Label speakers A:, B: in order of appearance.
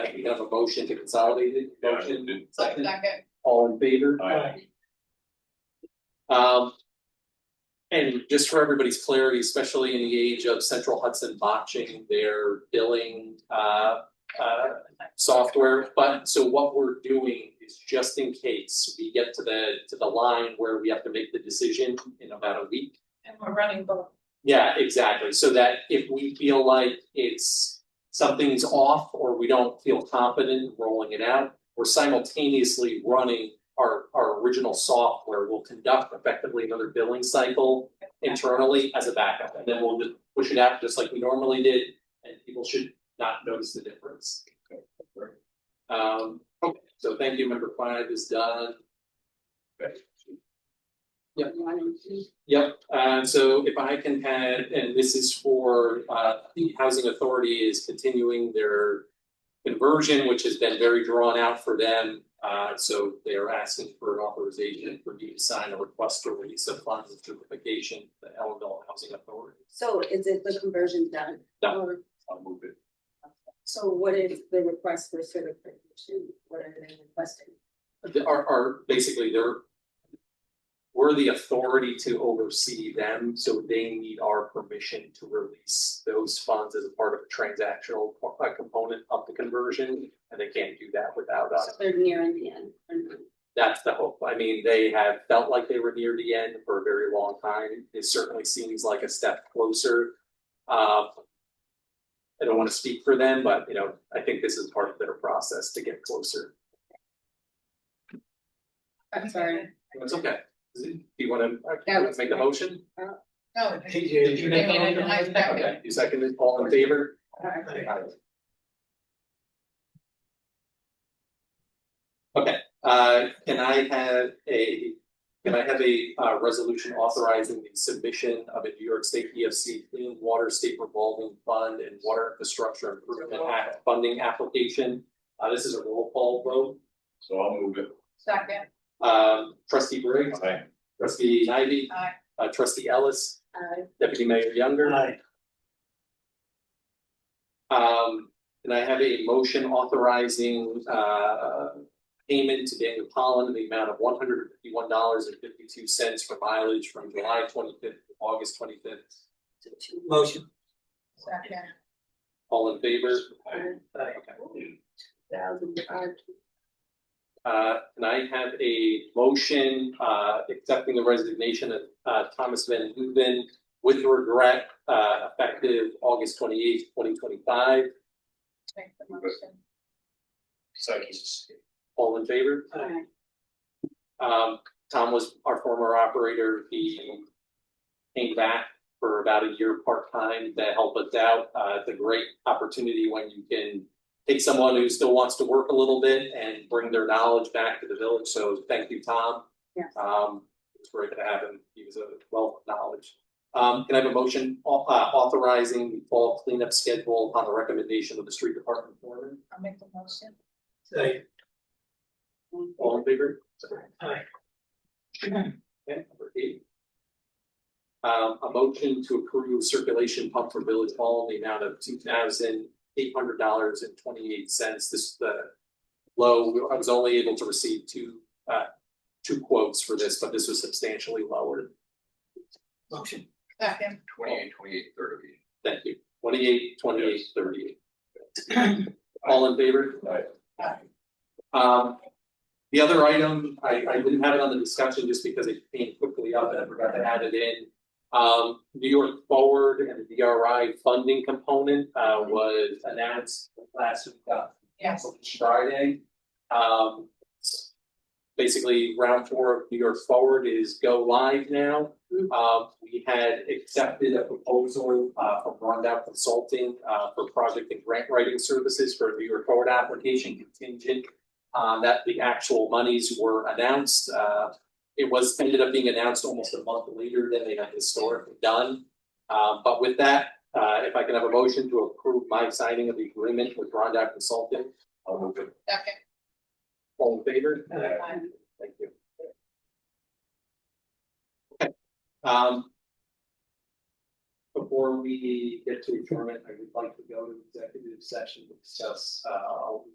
A: That we have a motion to consolidate it, motion, second,
B: Second.
A: all in favor?
C: Aye.
A: Um. And just for everybody's clarity, especially in the age of Central Hudson botching their billing uh uh software, but so what we're doing is just in case we get to the to the line where we have to make the decision in about a week.
B: And we're running both.
A: Yeah, exactly, so that if we feel like it's something's off or we don't feel confident rolling it out, we're simultaneously running our our original software, we'll conduct effectively another billing cycle internally as a backup, and then we'll just push it out just like we normally did, and people should not notice the difference. Um, okay, so thank you, member five is done. Yep. Yep, and so if I can have, and this is for, uh, the housing authority is continuing their conversion, which has been very drawn out for them. Uh, so they are asking for an authorization for me to sign a request for release of funds and certification, to the Ellenville Housing Authority.
D: So is it the conversion done?
A: Done.
D: Or-
C: I'll move it.
D: So what is the request for certification? What are they requesting?
A: the- are are basically they're. We're the authority to oversee them, so they need our permission to release those funds as a part of a transactional co- uh, component of the conversion. And they can't do that without
D: So
A: us.
D: they're nearing the end or not?
A: That's the hope. I mean, they have felt like they were near the end for a very long time. It certainly seems like a step closer. Uh, I don't want to speak for them, but you know, I think this is part of their process to get closer.
D: I'm sorry.
A: It's okay. Do you want
D: That
A: to
D: was
A: make the
D: great.
A: motion?
B: No.
C: Did you
B: make a motion? I second.
A: Okay, you seconded, all in favor? uh,
D: Alright.
A: Okay, uh, can I have a, can I have a, uh, resolution authorizing the submission of a New York State EFC Clean Water State Revolving Fund and Water Infrastructure Improvement Act funding application? Uh, this is a roll call vote,
C: So I'll move it.
B: Second,
A: um, trustee Briggs,
C: Aye.
A: trustee Ivy,
B: Aye.
A: uh, trustee Ellis,
D: Uh,
A: deputy mayor Younger.
E: Aye.
A: Um, and I have a motion authorizing, uh, payment to Daniel Pollan in the amount of one hundred fifty-one dollars and fifty-two cents for mileage from July twenty-fifth to August twenty-fifth.
D: to two.
E: Motion.
B: second,
A: All in favor?
D: Aye.
A: Okay.
D: Thousand five.
A: Uh, and I have a motion, uh, accepting the resignation of, uh, Thomas Van Hooven with regret, uh, effective August twenty-eighth, twenty twenty-five.
B: make the motion.
C: Second.
A: All in favor?
D: Aye.
A: Um, Tom was our former operator, he came back for about a year part-time to help us out. Uh, it's a great opportunity when you can take someone who still wants to work a little bit and bring their knowledge back to the village, so thank you, Tom.
D: Yeah.
A: Um, it's great to have him, he was a wealth of knowledge. Um, can I have a motion au- uh, authorizing the fall cleanup schedule upon the recommendation of the street department foreman?
B: I'll make the motion.
E: Second.
A: All in favor?
E: Aye.
A: Okay, number eight. Um, a motion to approve circulation pump for Village Hall in the amount of two thousand eight hundred dollars and twenty-eight cents. This is the low, I was only able to receive two, uh, two quotes for this, but this was substantially lower.
E: Motion.
B: Second,
C: Twenty-eight, twenty-eight, thirty.
A: Thank you. Twenty-eight, twenty-eight, thirty-eight. All in favor?
C: Aye.
B: Aye.
A: Um, the other item, I, I didn't have it on the discussion just because it came quickly up and I forgot to add it in. Um, New York Forward and the DRI funding component, uh, was announced last week, uh,
B: yes,
A: Friday. Um, basically, round four of New York Forward is go live now. Uh, we had accepted a proposal, uh, from Rondell Consulting, uh, for project and grant writing services for a New York Forward application contingent. on that the actual monies were announced, Uh, it was, ended up being announced almost a month later than they had historically done. Um, but with that, uh, if I can have a motion to approve my signing of the agreement with Rondell Consulting
C: I'll move it.
B: second,
A: all in favor?
E: Aye.
B: Aye.
A: Thank you. Okay, um. Before we get to adjournment, I would like to go to executive session to discuss, uh,